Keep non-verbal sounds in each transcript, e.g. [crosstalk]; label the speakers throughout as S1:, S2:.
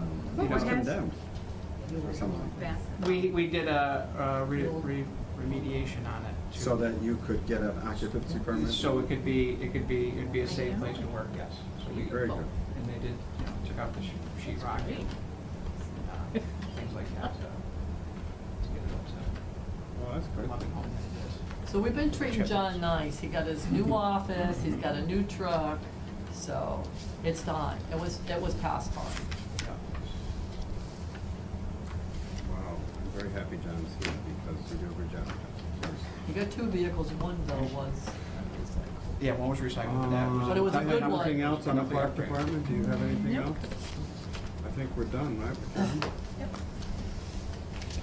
S1: What
S2: was
S1: was
S2: condemned or something.
S1: Back.
S3: We, we did a, a re- re- remediation on it. to-
S2: So that you could get an occupancy permit?
S3: So it could be, it could be, it'd be a safe place to work, yes. So we,
S2: Very good.
S3: and they did, you know, took out the sh- sheet rock and, uh, things like that, so. to get it up
S2: Well, that's
S3: to
S2: good.
S3: loving home that it is.
S4: So we've been treating John nice. He got his
S3: Mm-hmm.
S4: new office, he's got a new truck, so it's done. It was, it was past time.
S2: Wow, I'm very happy John's here because you do a good job.
S4: He got two vehicles, one though was,
S3: Yeah, one was recycled, but that was.
S4: But it was a
S2: Uh,
S4: good one.
S2: Anything else on the
S3: Public
S2: park
S3: upgrade.
S2: department? Do you have anything
S1: Nope.
S2: else? I think we're done, right? We're done?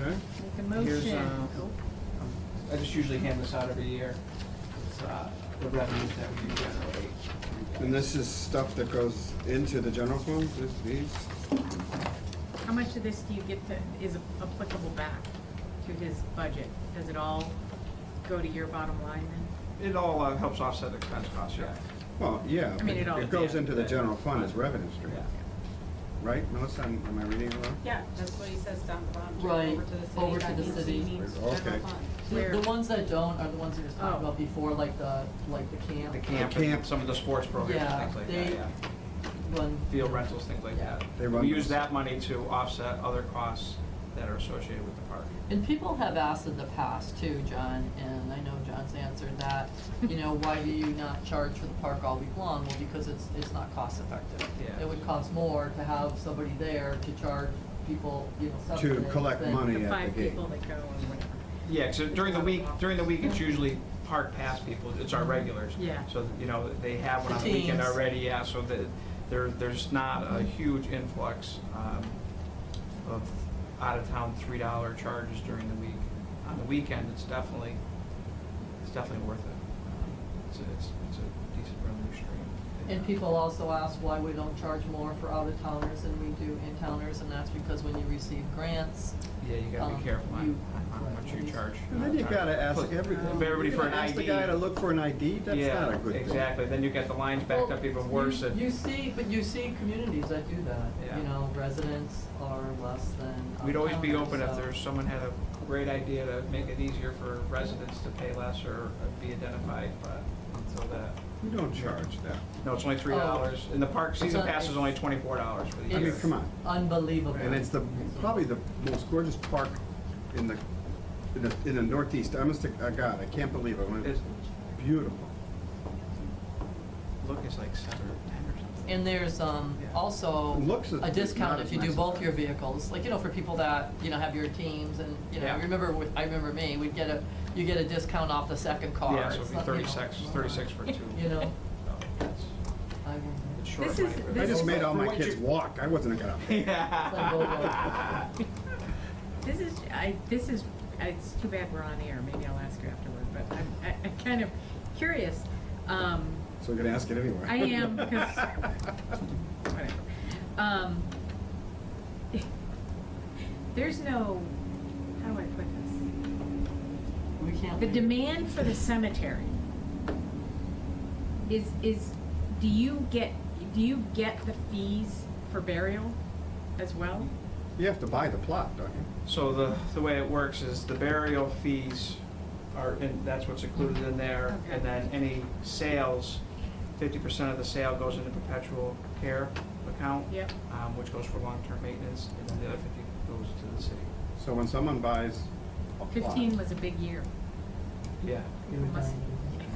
S2: Okay,
S1: Make a
S3: Here's,
S1: motion.
S3: um, um, I just usually hand this out every year, It's, uh, the revenues that we generate.
S2: and this is stuff that goes into the general fund, this, these?
S1: How much of this do you get that is applicable back to his budget? Does it all go to your bottom line then?
S3: It all uh, helps offset expense costs, yeah.
S2: Well, yeah,
S1: I mean, it all-
S2: it goes into the
S3: yeah.
S2: general fund as revenue stream,
S3: Yeah.
S2: right? Melissa, am am I reading it wrong?
S5: Yeah, that's what he says down the bottom.
S4: Right,
S5: Over to the city.
S4: over
S5: That
S4: to the
S5: means he
S4: city.
S5: means
S2: Okay.
S5: general fund.
S1: Where-
S4: the ones that don't are the ones we were talking
S1: Oh.
S4: about before, like the, like the camp.
S3: The camp,
S2: camp.
S3: and some of the sports programs,
S4: Yeah,
S3: things like that,
S4: they,
S3: yeah.
S4: when,
S3: Field rentals, things like that.
S2: They run
S3: We use
S2: those.
S3: that money to offset other costs that are associated with the park.
S4: And people have asked in the past too, John, and I know John's answered that, you know, why do you not charge for the park all week long? Well, because it's, it's not cost effective.
S3: Yeah.
S4: It would cost more to have somebody there to charge people, you know,
S2: To
S4: subsidies
S2: collect
S4: than-
S2: money
S1: The
S2: at
S1: five
S2: the gate.
S1: people that go or whatever.
S3: Yeah, because during the week, during the week, it's usually park pass people, it's our regulars.
S1: Yeah.
S3: So, you know, they have one on the
S4: Teams.
S3: weekend already, yeah, so that there, there's not a huge influx um, of out-of-town three-dollar charges during the week. On the weekend, it's definitely, it's definitely worth it. Um, It's, a- it's, it's a decent revenue stream.
S4: And people also ask why we don't charge more for out-of-towners than we do in-towners, and that's because when you receive grants,
S3: Yeah, you gotta be
S4: um,
S3: careful on,
S4: you-
S3: on what you charge. Uh,
S2: And Then you gotta ask
S3: Put-
S2: every,
S3: Everybody
S2: you
S3: for an
S2: gotta
S3: ID.
S2: ask the guy to look for an ID, that's
S3: Yeah,
S2: not a good thing.
S3: Exactly, then you get the lines backed up even worse
S4: Well,
S3: and.
S4: You you see, but you see communities that do that,
S3: Yeah.
S4: you know, residents are less than.
S3: We'd always be
S4: out-of-towners,
S3: open if
S4: so-
S3: there's, someone had a great idea to make it easier for residents to pay less or be identified, but until that.
S2: You don't charge that.
S3: No, it's only three
S4: Oh.
S3: dollars, and the park season pass is only twenty-four dollars for the
S2: I
S3: year.
S2: mean, come on.
S4: Unbelievable.
S2: And it's the, probably the most gorgeous park in the, in the, in the northeast. I must, have- uh, God, I can't believe it. It's
S3: It's,
S2: beautiful.
S3: look, it's like seven or ten or something.
S4: And there's um,
S3: Yeah.
S4: also
S2: It looks as-
S4: a
S2: not
S4: discount if
S2: as
S4: you do
S2: nice.
S4: both your vehicles, like, you know, for people that, you know, have your teams and, you know,
S3: Yeah.
S4: remember, with- I remember me, we'd get a, you get a discount off the second car.
S3: Yeah, so it'd
S4: It's
S3: be
S4: not, you know,
S3: thirty-six, thirty-six for two.
S4: You know,
S3: So it's-
S4: I remember.
S3: It's short
S1: This
S3: money.
S1: is-
S3: but-
S2: I
S1: this
S2: just
S1: is-
S2: made all
S3: For
S2: my
S3: what
S2: kids
S3: [laughs] you-
S2: walk. I wasn't gonna.
S4: It's like, oh, well,
S3: [laughs]
S1: This is, I, this is, it's too bad we're on air, maybe I'll ask you afterward, but I'm, I- I'm kind of curious. Um,
S2: So you're gonna ask it anyway.
S1: I am, 'cause- whatever. Um, [laughs] There's no, how do I put this?
S4: We can't.
S1: The
S4: leave.
S1: demand for the cemetery is, is, do you get, do you get the fees for burial as well?
S2: [laughs] You have to buy the plot, don't you?
S3: So the, the way it works is the burial fees are, and that's what's included in there.
S1: Okay.
S3: And then any sales, fifty percent of the sale goes into perpetual care account.
S1: Yep.
S3: Um, which goes for long-term maintenance, and then the other fifty goes to the city.
S2: So when someone buys a plot.
S1: Fifteen was a big year.
S3: Yeah.
S4: You were
S1: Must-
S4: dying.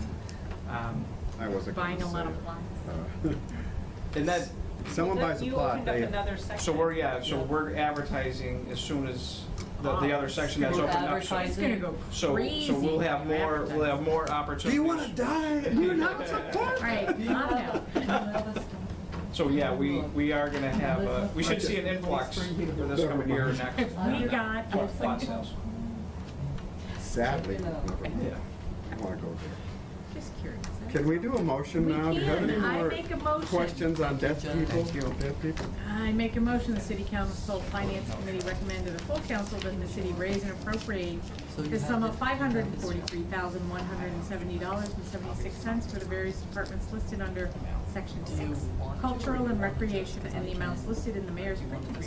S3: Um,
S2: I wasn't gonna
S1: Buying a lot
S2: say
S1: of
S2: it.
S1: plots.
S2: [laughs]
S3: and that,
S2: Uh, Someone
S5: Look,
S2: buys a
S5: you
S2: plot,
S5: opened up
S2: they,
S5: another section.
S3: so we're, yeah, so we're advertising as soon as the,
S1: Oh,
S3: the other section that's
S4: We're
S3: opened up. So-
S1: It's gonna go
S3: So,
S1: crazy.
S3: so we'll have
S1: for
S3: more, we'll have
S1: advertising.
S3: more
S2: do
S3: opportunities.
S2: you wanna [laughs] die? You're not
S1: All right, calm down.
S3: So, yeah, we, we are gonna have, a- we should see an influx for this coming year or next.
S1: We got,
S3: Lot- lot sales.
S2: Sadly,
S4: Check it out.
S2: never mind.
S3: Yeah.
S2: I wanna go there.
S1: [laughs] just curious.
S2: Can we do a motion
S1: We
S2: now? Do you have
S1: can.
S2: any
S1: I
S2: more
S1: make a motion.
S2: Questions on deaf
S4: Thank you,
S2: people?
S4: John.
S2: Deaf people?
S1: I make a motion, the city council finance committee recommend to the full council that the city raise and appropriate
S4: So you
S1: the sum
S4: have
S1: of
S4: it.
S1: five hundred and forty-three thousand, one hundred and seventy dollars and seventy-six cents for the various departments listed under section
S4: Do you
S1: six,
S4: want to-
S1: cultural and recreation, and the amounts listed in the mayor's printed